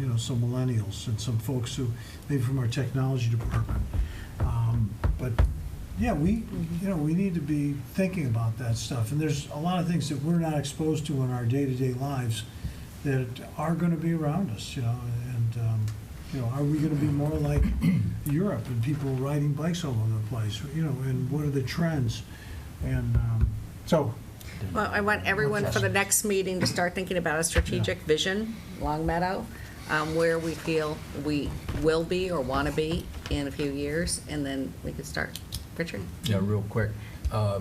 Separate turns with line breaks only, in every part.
know, some millennials and some folks who, maybe from our technology department. Um, But, yeah, we, you know, we need to be thinking about that stuff. And there's a lot of things that we're not exposed to in our day-to-day lives that are going to be around us, you know, and, um, you know, are we going to be more like Europe and people riding bikes all over the place, you know, and what are the trends? And um, so,
Well, I want everyone for the next meeting to start thinking about a strategic vision, Long Meadow, um, where we feel we will be or want to be in a few years, and then we can start. Richard?
Yeah, real quick. Uh,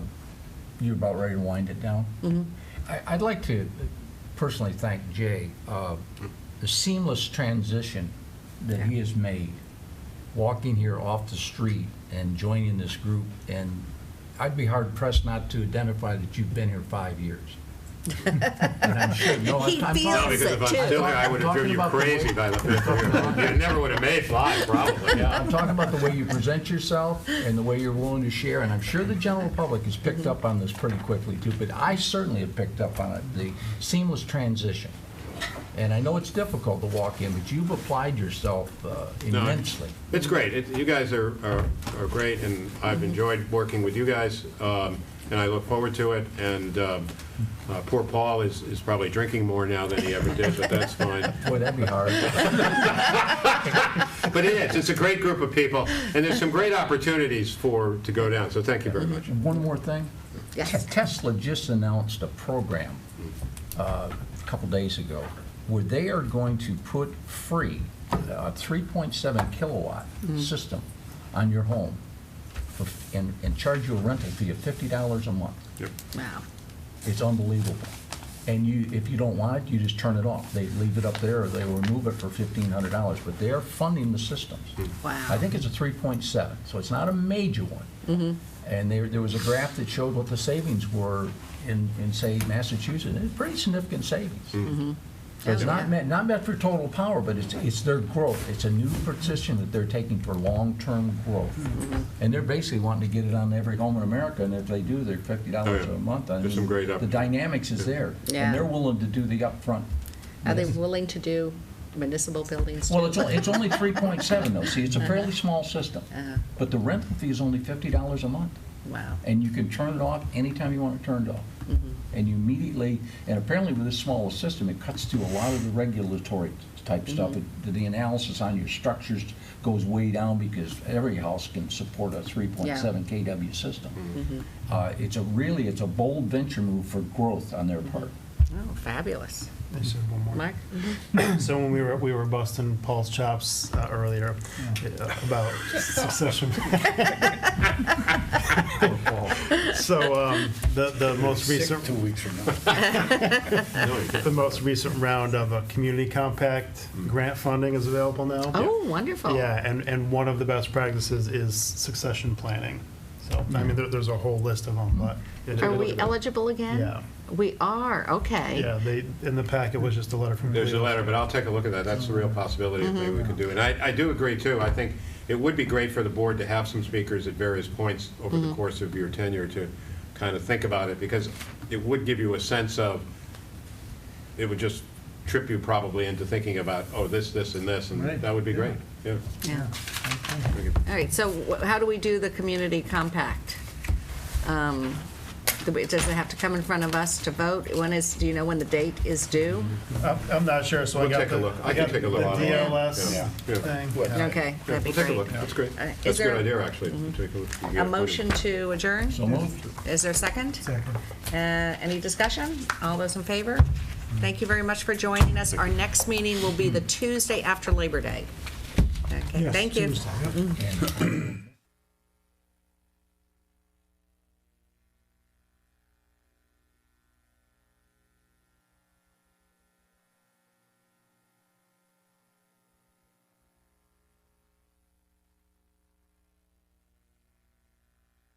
You about ready to wind it down? Mm-hmm. I'd like to personally thank Jay. uh, The seamless transition that he has made, walking here off the street and joining this group, and I'd be hard pressed not to identify that you've been here five years. And I'm sure- no, I'm-
He
I'm
feels
No,
talking-
because if I'm
Too.
still here, I would have driven
Talking
you
about the
crazy
way-
by the fifth year. You never would have made five, probably.
Yeah, I'm talking about the way you present yourself and the way you're willing to share, and I'm sure the general public has picked up on this pretty quickly too, but I certainly have picked up on it, the seamless transition. And I know it's difficult to walk in, but you've applied yourself uh,
No,
immensely.
It's great. It- You guys are, are are great, and
Mm-hmm.
I've enjoyed working with you guys, um, and I look forward to it. And um, uh, poor Paul is, is probably drinking more now than he ever did, but that's fine.
Boy, that'd be hard.
But it is, it's a great group of people, and there's some great opportunities for, to go down, so thank you very much.
One more thing.
Yes.
Tesla just announced a program uh, a couple days ago where they are going to put free uh, a 3.7 kilowatt system on your home for, and, and charge you a rental fee of $50 a month.
Yep.
Wow.
It's unbelievable. And you, if you don't want it, you just turn it off. They leave it up there or they remove it for $1,500, but they're funding the systems.
Hmm.
Wow.
I think it's a 3.7, so it's not a major one.
Mm-hmm.
And there, there was a graph that showed what the savings were in, in, say, Massachusetts, and it's pretty significant
Hmm.
savings. So it's
Oh, yeah.
not meant, not meant for total power, but it's, it's their growth. It's a new position that they're taking for long-term growth.
Mm-hmm.
And they're basically wanting to get it on every home in America, and if they do, they're $50
Oh, yeah.
a month. I
There's
mean,
some great
The
opportunities.
dynamics is there.
Yeah.
And they're willing to do the upfront.
Are they willing to do municipal buildings?
Well,
too?
it's only, it's only 3.7 though, see, it's a fairly small system.
Uh-huh.
But the rental fee is only $50 a month.
Wow.
And you can turn it off anytime you want it turned off.
Mm-hmm.
And you immediately, and apparently with this small system, it cuts through a lot of the regulatory type
Mm-hmm.
stuff. It- The analysis on your structures goes way down because every house can support a 3.7 KW
Mm-hmm.
system. Uh, It's a really, it's a bold venture move for growth on their part.
Mm-hmm.
Oh, fabulous.
I said one more.
Mark?
So when we were we were busting Paul's chops uh, earlier uh, about succession, so um, the the most recent
weeks from now.
No, you didn't. Mm.
the most recent round of a community compact grant funding is available now.
Oh, wonderful.
Yeah, and and one of the best practices is succession planning. So I
Mm.
mean, there, there's a whole list of them, but it-
Are
it-
we eligible again?
Yeah.
We are, okay.
Yeah, they in the packet was just a letter from.
There's a
Cleveland.
letter, but I'll take a look at that. That's the
Mm-hmm.
real possibility of maybe we could do. And I, I do agree too. I think it would be great for the board to have some speakers at various points over
Mm-hmm.
the course of your tenure to kind of think about it because it would give you a sense of, it would just trip you probably into thinking about, oh, this, this, and this, and
Right.
that would be great. Yeah.
Yeah. All right, so wh- how do we do the community compact? Um, do we- Does it have to come in front of us to vote? When is, do you know when the date is due?
I'm, I'm not sure, so I
We'll
got
take a
the.
look. I can
got
take a look.
The
on it.
DLS
Yeah. Yeah.
thing. Yeah.
Okay,
Yeah,
that'd be
we'll take a
great.
look. That's great.
All right. Is
That's a
there- Mm-hmm.
good idea, actually. We'll take a look. You get
A
it.
motion to adjourn?
So moved.
Is there a second?
Second.
Uh, Any discussion? All those in favor? Thank you very much for joining us. Our next meeting will be the Tuesday after Labor Day. Okay,
Yes,
thank you.
Tuesday, yep.
And